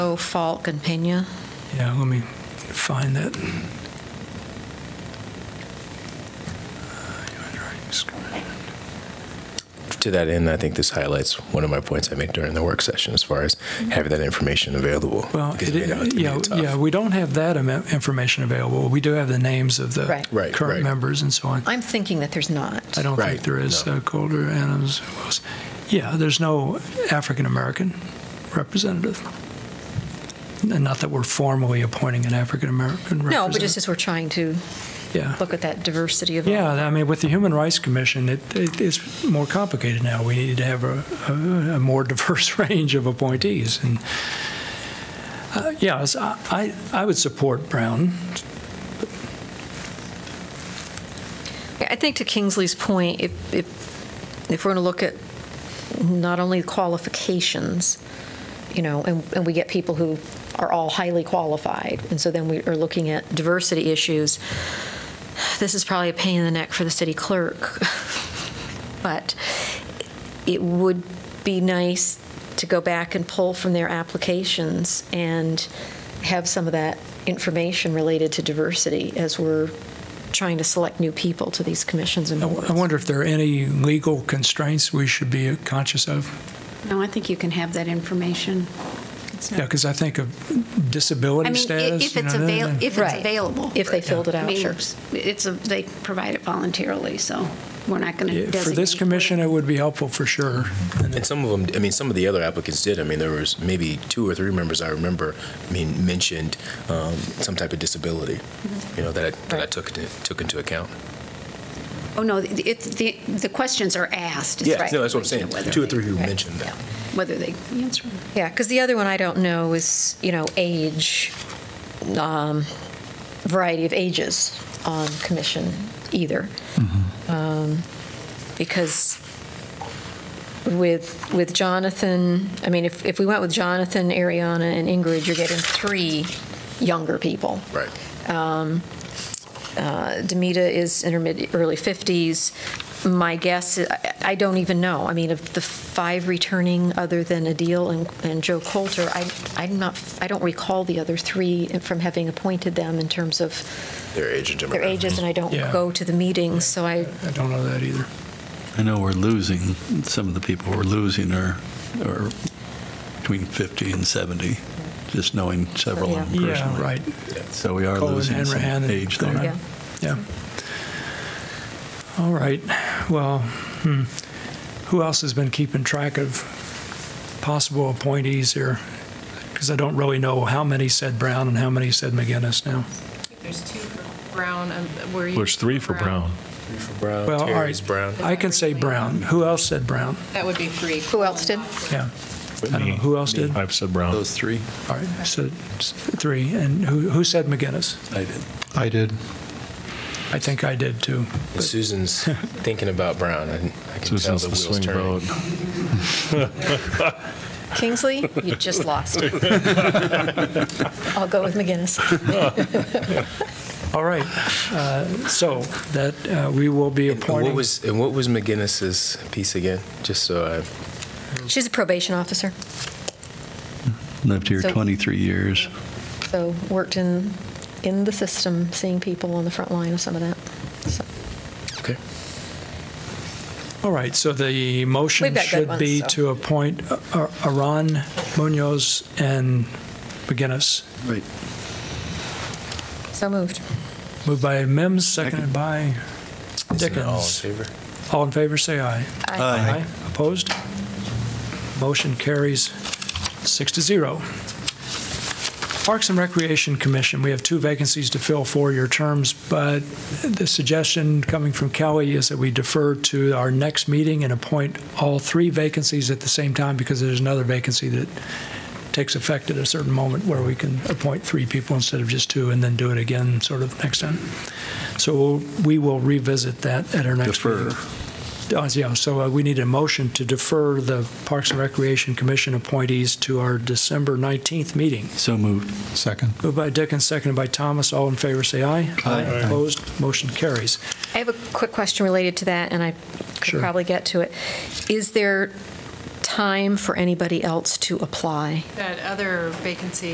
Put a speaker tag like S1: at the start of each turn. S1: Oh, Falk and Pena.
S2: Yeah, let me find that.
S3: To that end, I think this highlights one of my points I made during the work session as far as having that information available.
S2: Well,
S3: Because
S2: it,
S3: made it- it made
S2: yeah,
S3: it tough.
S2: yeah, we don't have that ama- information available. We do have the names of the
S1: Right.
S3: Right,
S2: current
S3: right.
S2: members and so on.
S1: I'm thinking that there's not.
S2: I don't
S3: Right,
S2: think there is
S3: no.
S2: uh, Calder, Adams. who else? Yeah, there's no African American representative. And not that we're formally appointing an African American representative.
S1: No, but just as we're trying to
S2: yeah.
S1: look at that diversity of.
S2: Yeah, I mean, with the Human Rights Commission, it, it, it's more complicated now. We need to have a, a, a more diverse range of appointees. And uh, yeah, it's- I, I, I would support Brown.
S1: I think to Kingsley's point, if, if, if we're going to look at not only qualifications, you know, and, and we get people who are all highly qualified, and so then we are looking at diversity issues, this is probably a pain in the neck for the city clerk. But it would be nice to go back and pull from their applications and have some of that information related to diversity as we're trying to select new people to these commissions and
S2: I w-
S1: boards.
S2: I wonder if there are any legal constraints we should be conscious of.
S4: No, I think you can have that information.
S2: Yeah, because I think of disability
S4: I mean, i-
S2: status.
S4: if
S2: you
S4: it's
S2: know, then-
S4: avail, if it's
S1: Right.
S4: available.
S1: If they filled it
S4: I
S1: out,
S4: mean,
S1: sure.
S4: It's, a- they provide it voluntarily, so we're not going to
S2: Yeah,
S4: designate.
S2: for this commission, it would be helpful for sure.
S3: And some of them, I mean, some of the other applicants did. I mean, there was maybe two or three members I remember, I mean, mentioned um, some type of disability, you know, that I, that I took, into- took into account.
S4: Oh, no, it's, the, the questions are asked. It's
S3: Yeah,
S4: just
S3: no, that's what I'm saying.
S4: whether
S3: Two or
S4: they-
S3: three who
S1: Right.
S3: mentioned that.
S4: Whether they answer. them.
S1: Yeah, because the other one I don't know is, you know, age, um, variety of ages on commission either. Um, Because with, with Jonathan, I mean, if, if we went with Jonathan, Ariana, and Ingrid, you're getting three younger people.
S3: Right.
S1: Uh, Demita is intermediate, early 50s. My guess, I- I don't even know. I mean, of the five returning, other than Adil and- and Joe Coulter, I- I'm not, I don't recall the other three from having appointed them in terms of
S3: Their age and demographic.
S1: their ages, and I don't
S2: Yeah.
S1: go to the meetings, so I,
S2: I don't know that either.
S5: I know we're losing, some of the people we're losing are, are between 50 and 70, just knowing several of them
S2: Yeah,
S5: personally.
S2: right.
S5: So we are
S2: Colin
S5: losing
S2: and
S5: some
S2: Rahan and
S5: age
S2: Colin.
S5: there.
S1: yeah.
S2: Yeah. All right. Well, hmm. who else has been keeping track of possible appointees here? Because I don't really know how many said Brown and how many said McGinnis now.
S6: There's two for Brown, um, were you?
S7: There's three for Brown.
S3: Brown,
S2: Well, all
S3: Uh, Terry's
S2: right.
S3: Brown.
S2: I can say Brown. Who else said Brown?
S6: That would be three.
S1: Who else did?
S2: Yeah. I don't know. Who else did?
S7: I've said Brown.
S5: Those three?
S2: All right. So s- three. And who, who said McGinnis?
S5: I did.
S7: I did.
S2: I think I did too.
S3: And Susan's thinking about Brown. I, I can tell
S7: Susan's
S3: the
S7: the
S3: wheels
S7: swing
S3: turning.
S7: vote.
S1: Kingsley, you just lost. I'll go with McGinnis.
S2: All right. Uh, so that uh, we will be
S3: And what
S2: appointing.
S3: was and what was McGinnis's piece again? Just so I
S1: She's a probation officer,
S5: Lived here
S1: So-
S5: 23 years.
S1: so worked in, in the system, seeing people on the front line of some of that, so.
S3: okay.
S2: All right, so the motion
S1: We've got good
S2: should
S1: ones,
S2: be
S1: so.
S2: to appoint A- A- Aron Munoz and McGinnis.
S5: Right.
S1: So moved.
S2: Moved by Mims, seconded by
S3: Isn't it all in
S2: Dickens.
S3: favor?
S2: All in favor, say aye. Aye. Opposed? Motion carries six to zero. Parks and Recreation Commission, we have two vacancies to fill four-year terms, but the suggestion coming from Kelly is that we defer to our next meeting and appoint all three vacancies at the same time because there's another vacancy that takes effect at a certain moment where we can appoint three people instead of just two and then do it again sort of next time. So we'll- we will revisit that at our next meeting.
S5: Defer.
S2: Uh, Yeah, so uh, we need a motion to defer the Parks and Recreation Commission appointees to our December 19th meeting.
S5: So moved.
S7: Second.
S2: Moved by Dickens, seconded by Thomas. All in favor, say aye.
S5: Aye.
S2: Opposed, motion carries.
S1: I have a quick question related to that, and I could
S2: Sure.
S1: probably get to it. Is there time for anybody else to apply.
S6: That other vacancy